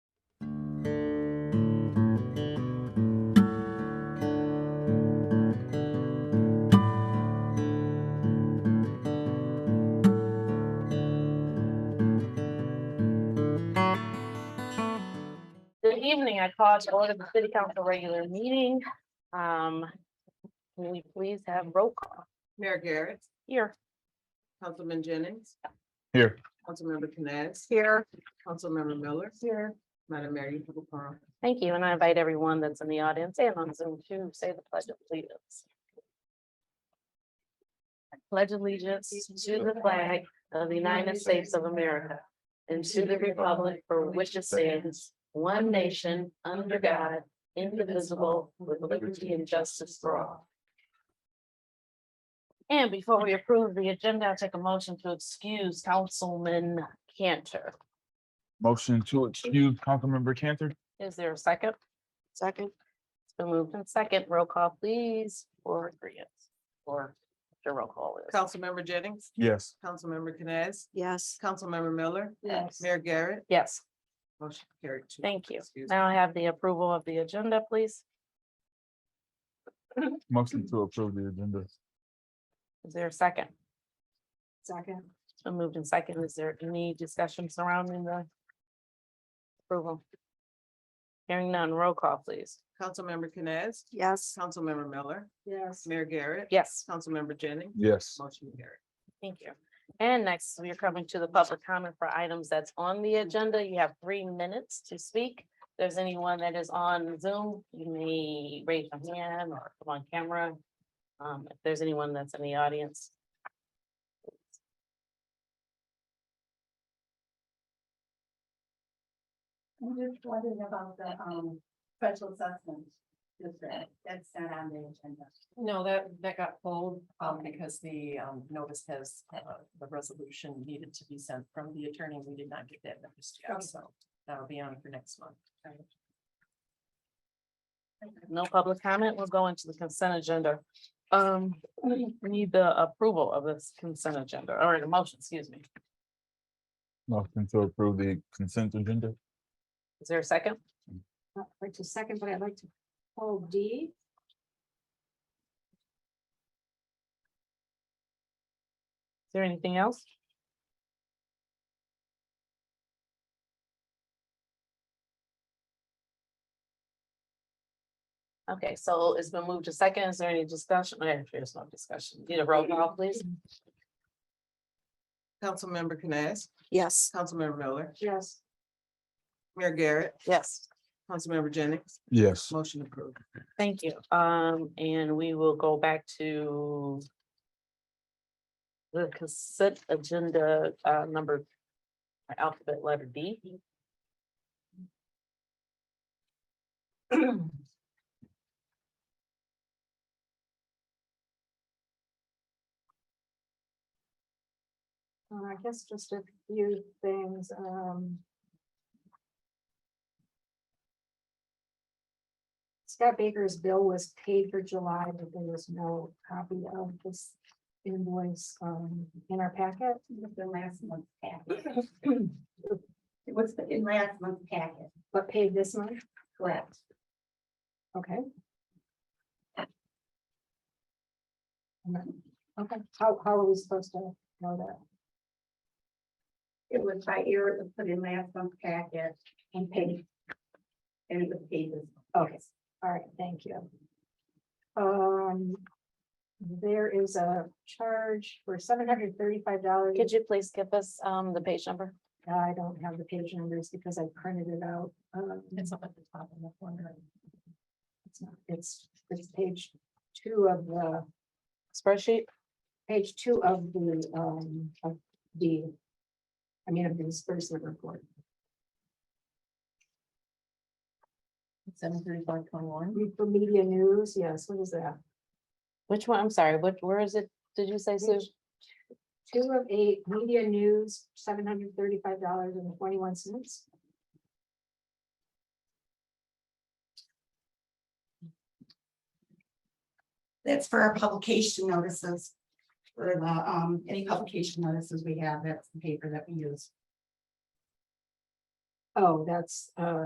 Good evening. I call to order the city council regular meeting. Um, can we please have roll call Mayor Garrett, here? Councilman Jennings. Here. Councilmember Canes, Here. Councilmember Miller. Here. Madam Mayor, you have the floor. Thank you, and I invite everyone that's in the audience and on Zoom to say the pledge of allegiance. I Pledge allegiance to the flag of the United States of America and to the republic for which it stands, one nation, under God, indivisible, with liberty and justice for all. And before we approve the agenda, I'll take a motion to excuse Councilman Cantor. Motion to excuse Councilmember Cantor? Is there a second? Second. It's been moved in second. Roll call, please, for agreement. Or the roll call is. Councilmember Jennings, Yes. Councilmember Canes, Yes, Councilmember Miller. Yes. Mayor Garrett, Yes, motion carried. two. thank you. Excuse me. Now I have the approval of the agenda, please. Motion to approve the agenda? Is there a second? second, It's been moved in second. Is there any discussion surrounding the approval? Hearing none, roll call, please. Councilmember Canes, yes. Councilmember Miller, Yes. Mayor Garrett. Yes. Councilmember Jennings, Yes. motion carried. Thank you. And next, we are coming to the public comment for items that's on the agenda. You have three minutes to speak. If There's anyone that is on Zoom, you may raise your hand or come on camera. Um, if there's anyone that's in the audience. I'm just wondering about the, um, special assessment district, that's not on the agenda. No, that, that got pulled, um, because the, um, notice has, uh, the resolution needed to be sent from the attorney. We did not get that notice yet, so that'll be on for next month. No public comment. We'll go into the consent agenda. Um, we need the approval of this consent agenda or a motion, excuse me. Motion to approve the consent agenda? Is there a second? I'd like to Uh, second, but I'd like to hold D. Is there anything else? Okay, so it's been moved to second. Is there any discussion? Okay, There's no discussion. Need a roll call, please? Councilmember Canes, Yes. Councilmember Miller, Yes. Mayor Garrett, Yes. Councilmember Jennings, Yes. motion approved. Thank you. Um, and we will go back to the consent agenda, uh, number alphabet letter D. Uh, I guess just a few things, um. Scott Baker's bill was paid for July, but there was no copy of this invoice, um, in our packet. With the last month's packet. It was in last month's packet, But paid this month, correct? okay? Okay, how, how are we supposed to know that? It was by ear, it was put in last month's packet And paid and and it was paid this. Okay, all right, thank you. Um, there is a charge for seven hundred thirty-five dollars. Could you please give us, um, the page number? I don't have the page numbers because I printed it out. Um, It's up at the top in the corner. it's not- It's, it's page two of the, Spreadsheet? page two of the, um, of the, I mean, of the disbursement report. Seven thirty-five twenty-one. For media news, yes, what is that? Which one? I'm sorry, what, where is it? Did you say, Sue? Two of eight, media news, seven hundred thirty-five dollars and twenty-one cents. That's for our publication notices. For the, um, any publication notices we have, that's the paper that we use. Oh, that's, uh,